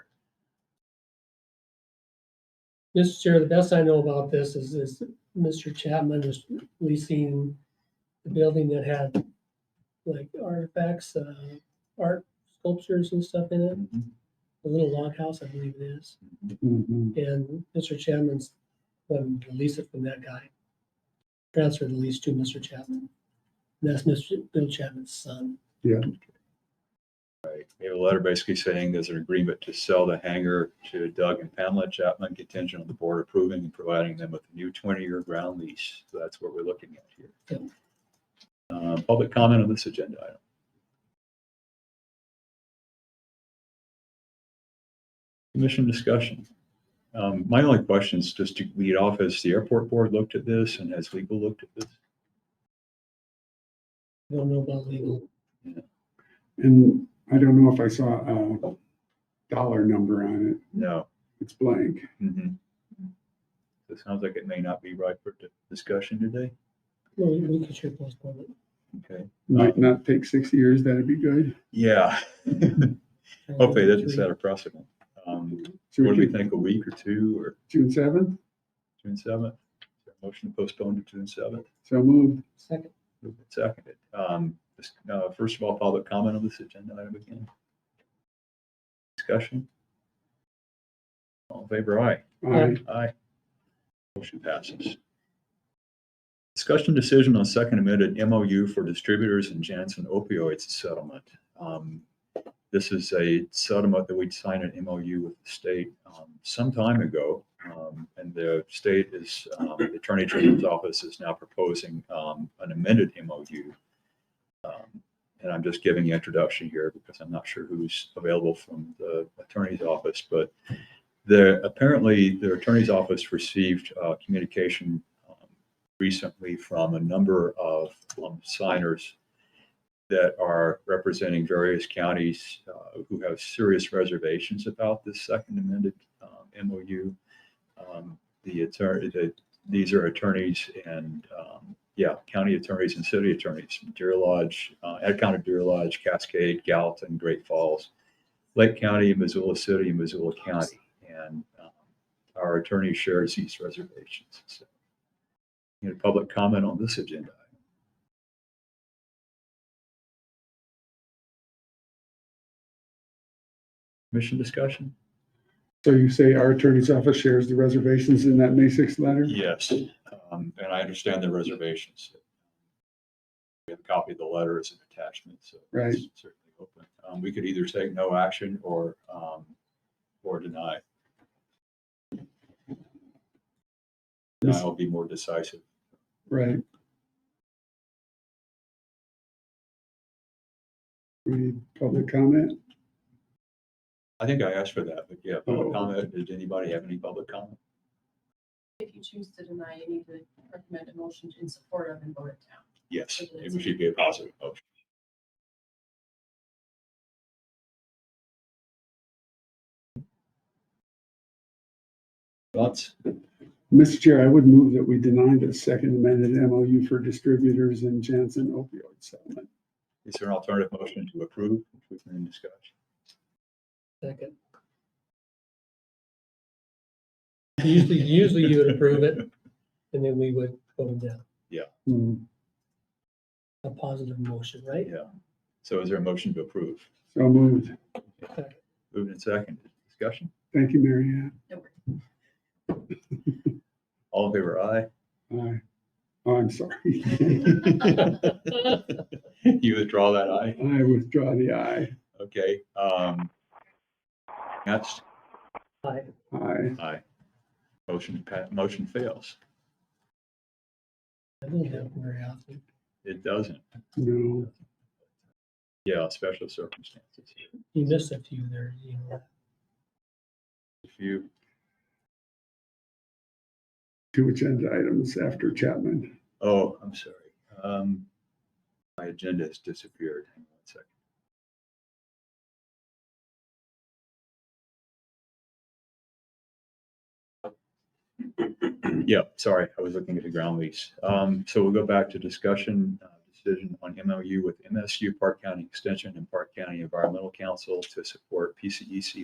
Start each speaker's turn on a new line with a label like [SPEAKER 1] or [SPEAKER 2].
[SPEAKER 1] Mr. Chair, the best I know about this is, is Mr. Chapman is leasing the building that had like artifacts, uh, art sculptures and stuff in it, a little log house, I believe it is.
[SPEAKER 2] Mm-hmm.
[SPEAKER 1] And Mr. Chapman's, um, lease it from that guy. Transferred the lease to Mr. Chapman. And that's Mr. Bill Chapman's son.
[SPEAKER 3] We have a letter basically saying there's an agreement to sell the hangar to Doug and Pamela Chapman contingent on the board approving and providing them with a new twenty-year ground lease. So that's what we're looking at here. Uh, Public comment on this agenda item. Commission discussion. Um, My only question is just to lead off, has the airport board looked at this and has legal looked at this?
[SPEAKER 1] I Don't know about legal.
[SPEAKER 2] And I don't know if I saw a dollar number on it.
[SPEAKER 3] No.
[SPEAKER 2] It's blank.
[SPEAKER 3] Mhm. So It sounds like it may not be right for di- discussion today.
[SPEAKER 1] Well, we could sure postpone it.
[SPEAKER 3] Okay.
[SPEAKER 2] Might not take six years. That'd be good.
[SPEAKER 3] Yeah. Hopefully that doesn't
[SPEAKER 1] Three.
[SPEAKER 3] set a precedent. Um,
[SPEAKER 2] Should
[SPEAKER 3] What do we
[SPEAKER 2] do
[SPEAKER 3] think, a week or two or
[SPEAKER 2] June seventh.
[SPEAKER 3] June seventh? Motion to postpone to June seventh,
[SPEAKER 2] So moved.
[SPEAKER 1] Second,
[SPEAKER 3] seconded. Um, this- uh, First of all, public comment on this agenda item again. Discussion? All in favor, aye.
[SPEAKER 2] Aye.
[SPEAKER 3] Aye. Motion passes. Discussion decision on second amended MOU for distributors and Janssen opioids settlement. Um, This is a settlement that we signed an MOU with the state um, some time ago. um, And the state is, um, the Attorney General's Office is now proposing um, an amended MOU. Um, And I'm just giving the introduction here because I'm not sure who's available from the Attorney's Office, but the, apparently, their attorney's office received uh, communication um, recently from a number of um, signers that are representing various counties uh, who have serious reservations about this second amended um, MOU. Um, The attorney, the- these are attorneys and, um, yeah, county attorneys and city attorneys, from Deer Lodge, uh, Ed County Deer Lodge, Cascade, Gallatin, Great Falls, Lake County, Missoula City, and Missoula County and um, our attorney shares these reservations. So, you know, public comment on this agenda. Commission discussion?
[SPEAKER 2] So you say our attorney's office shares the reservations in that May sixth letter?
[SPEAKER 3] Yes, um, and I understand the reservations. We have a copy of the letter as an attachment, so. it's
[SPEAKER 2] Right.
[SPEAKER 3] Certainly open. Um, we could either take no action or, um, or deny. Denial will be more decisive.
[SPEAKER 2] Right. We need public comment?
[SPEAKER 3] I think I asked for that, but yeah, public
[SPEAKER 2] Oh.
[SPEAKER 3] comment. Did anybody have any public comment?
[SPEAKER 4] If you choose to deny, you need to recommend a motion in support of and vote it down.
[SPEAKER 3] Yes, it should be a positive motion. Thoughts?
[SPEAKER 2] Mr. Chair, I would move that we deny the second amended MOU for distributors and Janssen opioid settlement.
[SPEAKER 3] Is there an alternative motion to approve, which we can discuss?
[SPEAKER 1] second. Usually, usually you would approve it and then we would vote it down.
[SPEAKER 2] Hmm.
[SPEAKER 1] A positive motion, right?
[SPEAKER 3] Yeah. So is there a motion to approve?
[SPEAKER 2] So moved.
[SPEAKER 3] Moved and seconded. Discussion?
[SPEAKER 2] Thank you, Mary Ann.
[SPEAKER 4] No worries.
[SPEAKER 3] All in favor, aye?
[SPEAKER 2] Aye. Oh, I'm sorry.
[SPEAKER 3] You withdraw that aye?
[SPEAKER 2] I withdraw the aye.
[SPEAKER 3] Okay. um, That's
[SPEAKER 1] Aye.
[SPEAKER 2] Aye.
[SPEAKER 3] Aye. Motion, pa- motion fails.
[SPEAKER 1] That doesn't happen very often.
[SPEAKER 3] It doesn't.
[SPEAKER 2] No.
[SPEAKER 3] Yeah, special circumstances.
[SPEAKER 1] You missed a few there, you know.
[SPEAKER 3] If you,
[SPEAKER 2] Two agenda items after Chapman.
[SPEAKER 3] oh, I'm sorry. Um, My agenda has disappeared. Hang on one second. Yeah, sorry, I was looking at the ground lease. Um, so we'll go back to discussion, uh, decision on MOU with MSU Park County Extension and Park County Environmental Council to support E PCEC